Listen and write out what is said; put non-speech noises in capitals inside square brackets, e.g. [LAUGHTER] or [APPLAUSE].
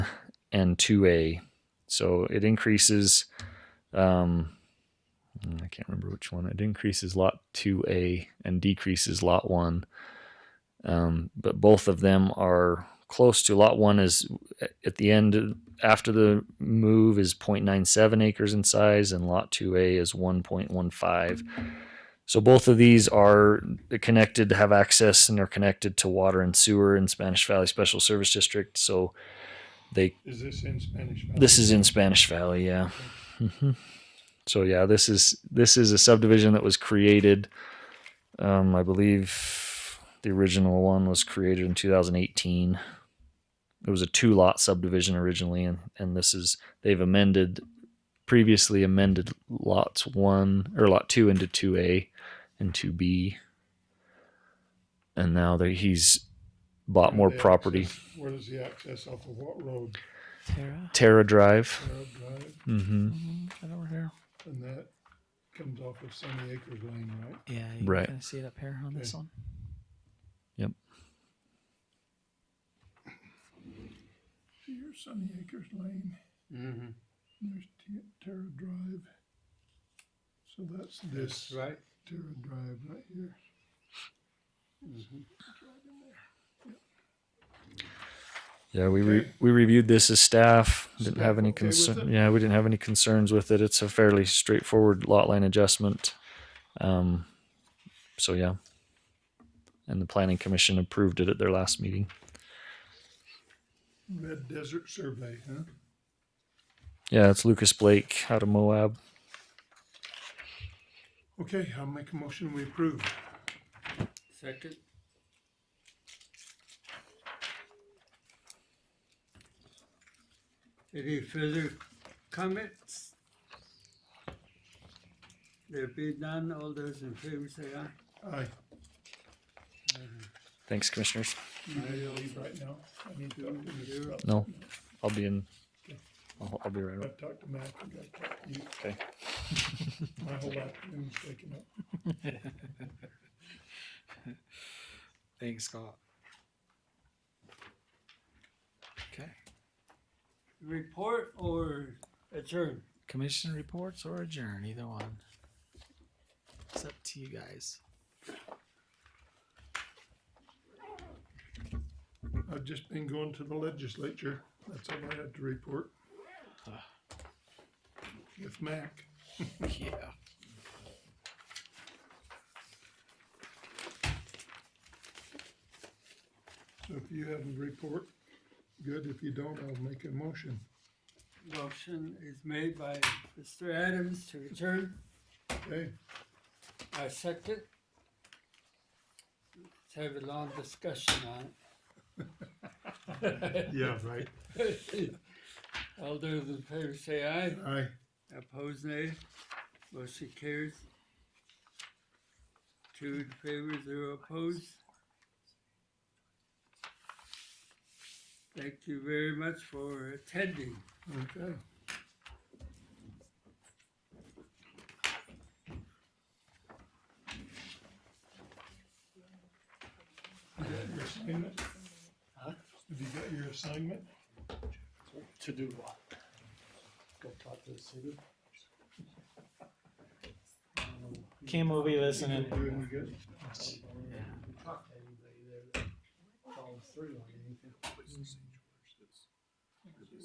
and 2A. So it increases, um, I can't remember which one. It increases lot 2A and decreases lot 1. Um, but both of them are close to lot 1 is at the end after the move is 0.97 acres in size and lot 2A is 1.15. So both of these are connected, have access and are connected to water and sewer in Spanish Valley Special Service District. So they Is this in Spanish? Valley? this is in Spanish Valley, yeah. hmm So yeah, this is this is a subdivision that was created. Um, I believe the original one was created in 2018. It was a two lot subdivision originally, and and this is they've amended previously amended lots one or lot two into two A and two B, and now that he's bought more The property. access- Where does the access off of what road? Tara. Terra Drive. Arab Drive, Mm-hmm. Right over here. and that comes off of Sunny Acres Lane, right? Yeah, you Right. can kind of see it up here on this Okay. one. See, here's Sunny Acres Lane. Mm-hmm. There's T- Terra Drive. So that's this. Right. Terra Drive right here. Mm-hmm. Yeah, we re- Okay. we reviewed this as staff. Didn't Staff have any okay with concern. it? Yeah, we didn't have any concerns with it. It's a fairly straightforward lot line adjustment. Um, so yeah, and the planning commission approved it at their last meeting. Red Desert Survey, huh? Yeah, it's Lucas Blake out of Moab. Okay, I'll make a motion, we approve. Second. Any further comments? There be none, all those in favor say aye. Aye. Thanks, commissioners. You ready to leave right now? I need to talk to Mr. Rupp. No, I'll be in. I'll, I'll be right up. I've talked to Mac, I've got to talk to you. Okay. [LAUGHS] My whole afternoon's taken up. [LAUGHS] Thanks, Scott. Okay. Report or adjourn? Commission reports or adjourn, either one. It's up to you guys. I've just been going to the legislature, that's all I had to report. Ah. With Mac. Yeah. So if you have a report, good. If you don't, I'll make a motion. Motion is made by Mr. Adams to adjourn. Okay, I second. Let's have a long discussion on it. [LAUGHS] yeah, right. All those in favor say aye. Aye. Opposed, nay. Motion carries. Two in favor, zero opposed. Thank you very much for attending. okay. You got your assignment? Huh? Have you got your assignment? To do what? Go talk to the city? Kim will be listening. Doing good? Talk to anybody there that follows through on anything.